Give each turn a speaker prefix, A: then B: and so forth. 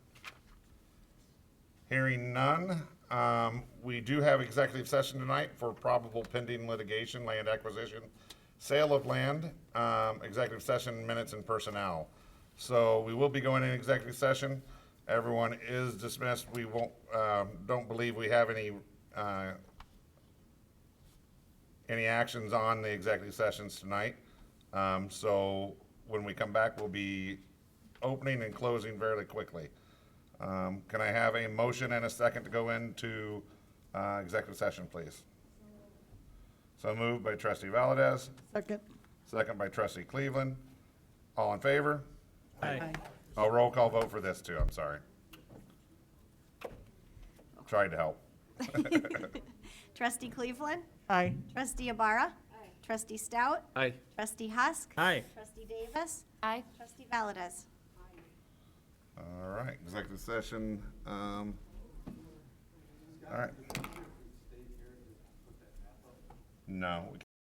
A: Hearing none. Um, We do have executive session tonight for probable pending litigation, land acquisition, sale of land, um, executive session minutes and personnel. So we will be going in executive session. Everyone is dismissed. We won't, um, don't believe we have any uh, any actions on the executive sessions tonight. Um, so when we come back, we'll be opening and closing fairly quickly. Um, can I have a motion and a second to go into, uh, executive session, please? So moved by trustee Valdez,
B: Second.
A: second by trustee Cleveland. All in favor?
B: Aye.
A: Oh, roll call vote for this too, I'm sorry. Tried to help.
C: Trustee Cleveland?
B: Aye.
C: Trustee Abara? Trustee Stout?
D: Aye.
C: Trustee Husk?
D: Aye.
C: Trustee Davis? Aye. Trustee Valdez?
A: All right, executive session, um, all right. No, we